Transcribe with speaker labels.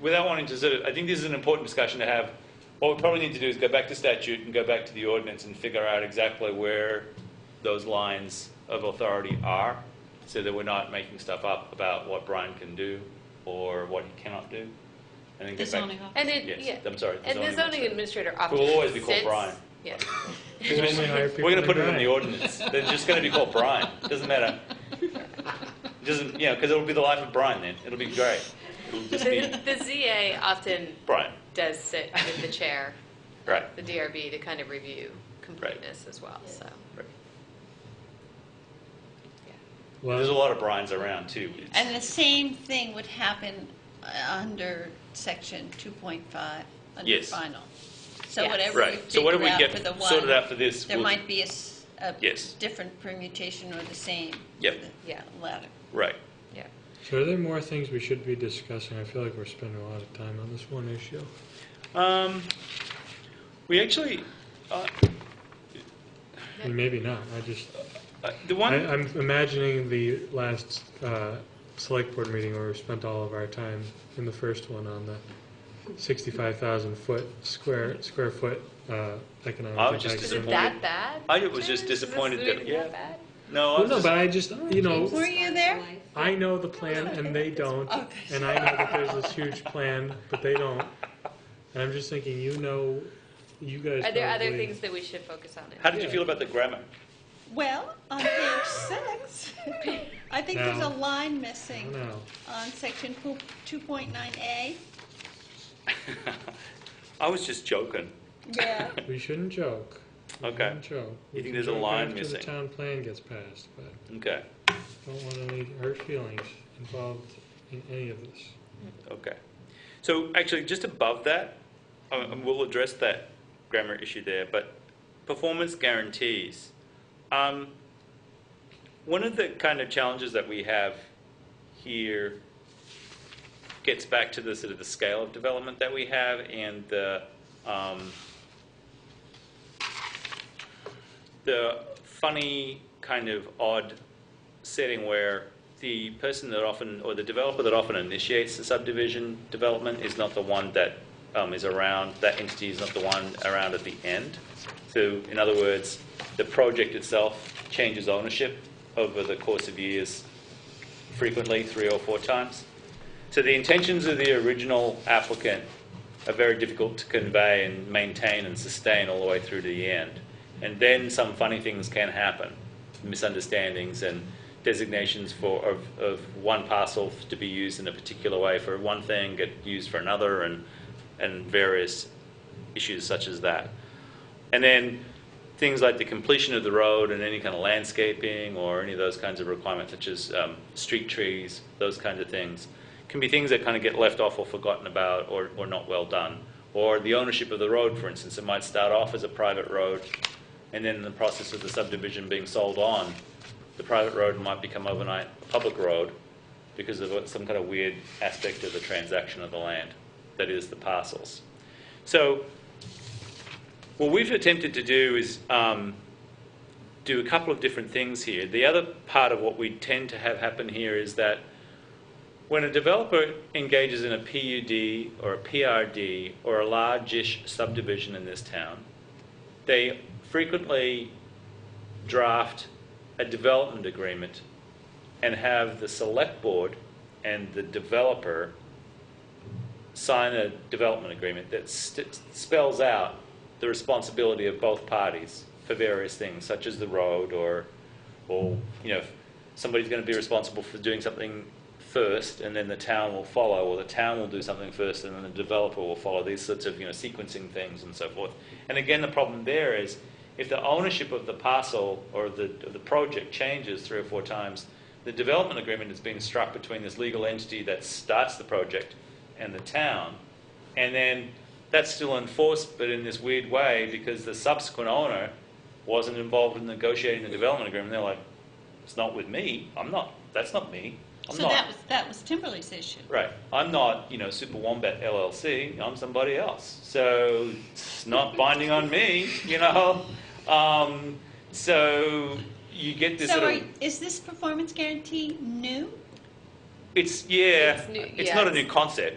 Speaker 1: without wanting to sort of, I think this is an important discussion to have. What we probably need to do is go back to statute and go back to the ordinance and figure out exactly where those lines of authority are, so that we're not making stuff up about what Brian can do or what he cannot do. And then
Speaker 2: The
Speaker 1: get back.
Speaker 2: zoning office.
Speaker 3: And it, yeah.
Speaker 1: Yes, I'm sorry.
Speaker 3: And the zoning administrator often.
Speaker 1: We'll always be called
Speaker 3: sits-
Speaker 1: Brian.
Speaker 3: Yeah.
Speaker 1: We're going to put it in the ordinance. They're just going to be called Brian. Doesn't matter. Doesn't, you know, because it'll be the life of Brian then. It'll be great. It'll just be
Speaker 3: The the ZA often
Speaker 1: Brian.
Speaker 3: does sit with the chair,
Speaker 1: Right.
Speaker 3: the DRB, to kind of review completeness as well, so.
Speaker 1: Right. There's a
Speaker 4: Well,
Speaker 1: lot of Brian's around too. It's-
Speaker 2: And the same thing would happen uh, under section 2.5, under
Speaker 1: Yes.
Speaker 2: final. So
Speaker 3: Yes.
Speaker 2: whatever we
Speaker 1: Right. So what do
Speaker 2: figure
Speaker 1: we
Speaker 2: out
Speaker 1: get
Speaker 2: for the
Speaker 1: sorted out
Speaker 2: one,
Speaker 1: for this?
Speaker 2: there
Speaker 1: We'll-
Speaker 2: might be a s- a
Speaker 1: Yes.
Speaker 2: different permutation or the same.
Speaker 1: Yep.
Speaker 2: for the
Speaker 3: Yeah.
Speaker 2: Latter.
Speaker 1: Right.
Speaker 3: Yeah.
Speaker 4: so are there more things we should be discussing? I feel like we're spending a lot of time on this one issue.
Speaker 1: Um, we actually, uh,
Speaker 4: And maybe not, I just,
Speaker 1: uh, the
Speaker 4: I,
Speaker 1: one,
Speaker 4: I'm imagining the last, uh, select board meeting where we spent all of our time in the first one on the sixty-five thousand foot, square, square foot, uh, economic.
Speaker 1: I was just
Speaker 3: Is
Speaker 4: impact assessment.
Speaker 3: it
Speaker 1: Disappointed.
Speaker 3: that bad?
Speaker 1: I was just
Speaker 3: Is this
Speaker 1: disappointed that-
Speaker 3: really
Speaker 1: yeah.
Speaker 3: that bad?
Speaker 1: no, I
Speaker 4: Well,
Speaker 1: was
Speaker 4: no,
Speaker 1: just-
Speaker 4: but I just, you know,
Speaker 2: Were you there?
Speaker 4: I know the plan and they don't,
Speaker 2: Okay.
Speaker 4: and I know that there's this huge plan, but they don't. And I'm just thinking, you know, you guys
Speaker 3: Are there other
Speaker 4: probably-
Speaker 3: things that we should focus on? in-
Speaker 1: how did you feel about the grammar?
Speaker 2: Well, on page six, I think there's a
Speaker 4: No.
Speaker 2: line
Speaker 4: I
Speaker 2: missing
Speaker 4: don't know.
Speaker 2: on section 2.9A.
Speaker 1: I was just joking.
Speaker 2: Yeah.
Speaker 4: We shouldn't joke. We
Speaker 1: Okay.
Speaker 4: shouldn't joke.
Speaker 1: You
Speaker 4: We
Speaker 1: think
Speaker 4: can
Speaker 1: there's a
Speaker 4: joke
Speaker 1: line
Speaker 4: after
Speaker 1: missing?
Speaker 4: the town plan gets passed, but
Speaker 1: Okay,
Speaker 4: I don't want any hurt feelings involved in any of this.
Speaker 1: okay. So actually, just above that, uh, and we'll address that grammar issue there, but performance guarantees. Um, one of the kind of challenges that we have here gets back to the sort of the scale of development that we have and the, um, the funny kind of odd setting where the person that often, or the developer that often initiates the subdivision development is not the one that um, is around, that entity is not the one around at the end. So in other words, the project itself changes ownership over the course of years frequently, three or four times. So the intentions of the original applicant are very difficult to convey and maintain and sustain all the way through to the end. And then some funny things can happen, misunderstandings and designations for, of, of one parcel to be used in a particular way for one thing, get used for another, and, and various issues such as that. And then things like the completion of the road and any kind of landscaping or any of those kinds of requirements, such as um, street trees, those kinds of things, can be things that kind of get left off or forgotten about or, or not well done. Or the ownership of the road, for instance, it might start off as a private road, and then in the process of the subdivision being sold on, the private road might become overnight a public road because of what- some kind of weird aspect of the transaction of the land, that is the parcels. So what we've attempted to do is um, do a couple of different things here. The other part of what we tend to have happen here is that when a developer engages in a PUD or a PRD or a large-ish subdivision in this town, they frequently draft a development agreement and have the select board and the developer sign a development agreement that st- spells out the responsibility of both parties for various things, such as the road or, or, you know, if somebody's going to be responsible for doing something first and then the town will follow, or the town will do something first and then the developer will follow, these sorts of, you know, sequencing things and so forth. And again, the problem there is if the ownership of the parcel or the, of the project changes three or four times, the development agreement is being struck between this legal entity that starts the project and the town. And then that's still enforced, but in this weird way, because the subsequent owner wasn't involved in negotiating the development agreement. They're like, it's not with me. I'm not, that's not me. I'm
Speaker 2: So
Speaker 1: not.
Speaker 2: that was, that was Timberley's issue.
Speaker 1: Right. I'm not, you know, Super Wombat LLC. I'm somebody else. So it's not binding on me, you know? Um, so you get this
Speaker 2: So
Speaker 1: sort
Speaker 2: are,
Speaker 1: of.
Speaker 2: is this performance guarantee new?
Speaker 1: It's, yeah.
Speaker 3: It's new-
Speaker 1: it's
Speaker 3: yeah,
Speaker 1: not a
Speaker 3: it's-
Speaker 1: new concept.